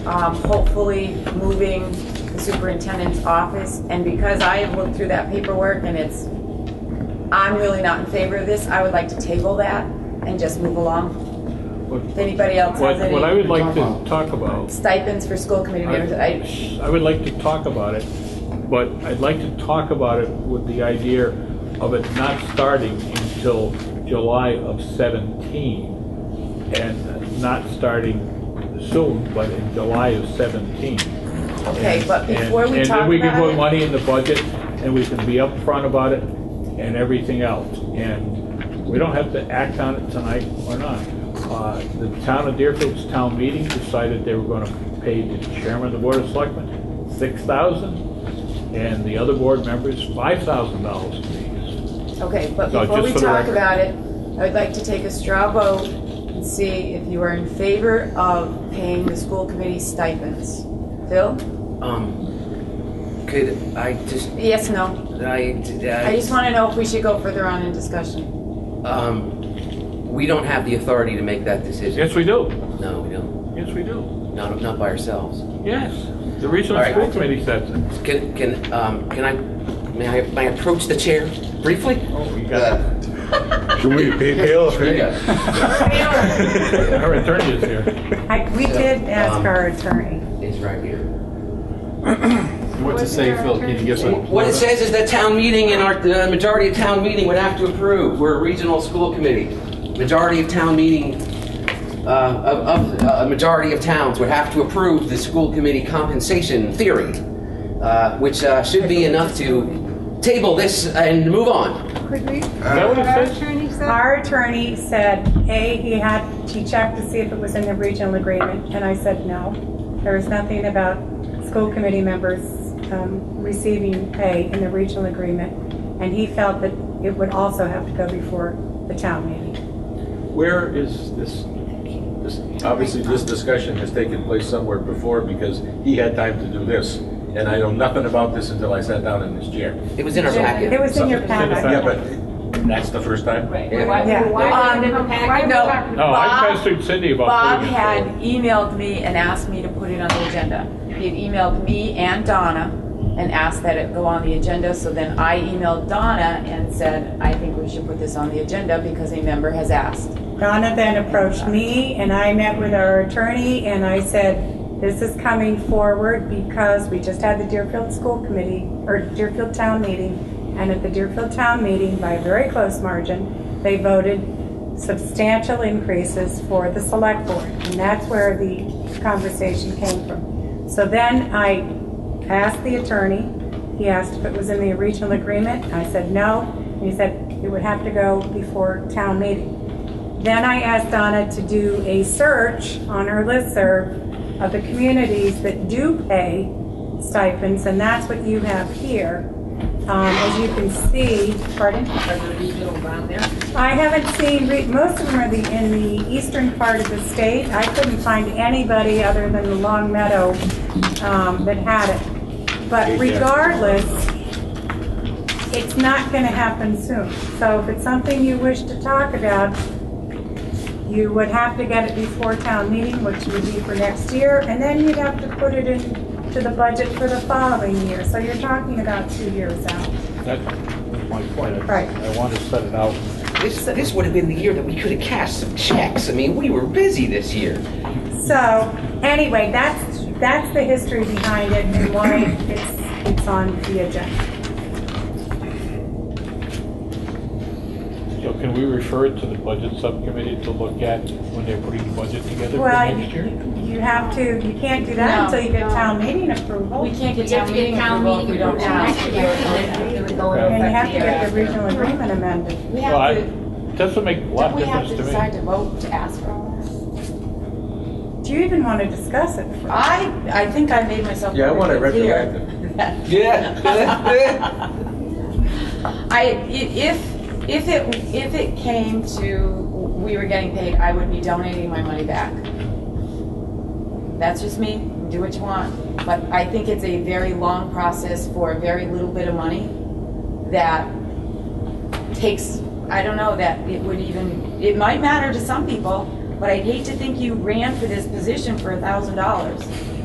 um, hopefully moving the superintendent's office. And because I have looked through that paperwork and it's, I'm really not in favor of this, I would like to table that and just move along. What, If anybody else has what what I any would like to talk about, stipends for school committee members, I, I I would like to talk about it, but I'd like to talk about it with the idea of it not starting until July of 17 and not starting soon, but in July of 17. okay, but And- before we and talk then we can put about it. money in the budget, and we can be upfront about it and everything else. And we don't have to act on it tonight or not. Uh, The town of Deerfield's town meeting decided they were gonna pay the chairman of the board of selectmen six thousand, and the other board members five thousand dollars apiece. Okay, but No, before just we for the talk record. about it, I would like to take a straw vote and see if you are in favor of paying the school committee stipends. Phil? Um, could I just, Yes, no? I, I just I, want to know if we should go further on in discussion. um, we don't have the authority to make that decision. Yes, we do. No, we don't, Yes, we do. not, not by ourselves. Yes. The regional All right. school committee sets it. Can, can, um, can I, may I, may I approach the chair briefly? Oh, you got it. Should we pay bills? Our attorney is here. I- We did Uh-huh. Um, ask our attorney. It's right here. What to say, Phil? Can you guess what? What it says is that town meeting and our, the majority of town meeting would have to approve. We're a regional school committee. Majority of town meeting, uh, of, of, a majority of towns would have to approve the school committee compensation theory, uh, which, uh, should be enough to table this and move on. Could we? that what it says? Our attorney said, hey, he had, he checked to see if it was in the regional agreement, and I said, no. There is nothing about school committee members um, receiving pay in the regional agreement, and he felt that it would also have to go before the town meeting. Where is this? this- Obviously, this discussion has taken place somewhere before because he had time to do this. And I know nothing about this until I sat down in this chair. It was in our packet. It was in your packet. Yeah, but that's the first time? Yeah. Um, no. No, I Bob- pestered Cindy about. Bob putting it had forward. emailed me and asked me to put it on the agenda. He had emailed me and Donna and asked that it go on the agenda, so then I emailed Donna and said, I think we should put this on the agenda because a member has asked. Donna then approached me, and I met with our attorney, and I said, this is coming forward because we just had the Deerfield School Committee, or Deerfield Town Meeting, and at the Deerfield Town Meeting, by a very close margin, they voted substantial increases for the Select Board, and that's where the conversation came from. So then I asked the attorney, he asked if it was in the regional agreement, I said no, and he said it would have to go before town meeting. Then I asked Donna to do a search on her listserv of the communities that do pay stipends, and that's what you have here. Um, As you can see, pardon? I haven't seen, re- most of them are the, in the eastern part of the state. I couldn't find anybody other than the Long Meadow um, that had it. But regardless, it's not going to happen soon. So if it's something you wish to talk about, you would have to get it before town meeting, which would be for next year, and then you'd have to put it into the budget for the following year. So you're talking about two years out. That's my point. Right. I want to set it out. This, this would have been the year that we could have cashed some checks. I mean, we were busy this year. So, anyway, that's, that's the history behind it and why it's, it's on the agenda. So can we refer it to the budget subcommittee to look at when they're putting the budget together for Well, next year? you- you have to, you can't do that until you get town meeting approval. Oh, We And can't get You town have to get meeting town approval if we meeting don't approval. ask. It would go into And you have to get effect the year the after. regional agreement amended. We Well, I, have to, doesn't make a lot don't of we have difference to to me. decide to vote to ask for all this? Do you even want to discuss it? I, I think I made myself. Yeah, I want it very clear. retroactive. Yeah. I, i- if, if it, if it came to, we were getting paid, I would be donating my money back. That's just me, do what you want. But I think it's a very long process for a very little bit of money that takes, I don't know, that it would even, it might matter to some people, but I'd hate to think you ran for this position for a thousand dollars.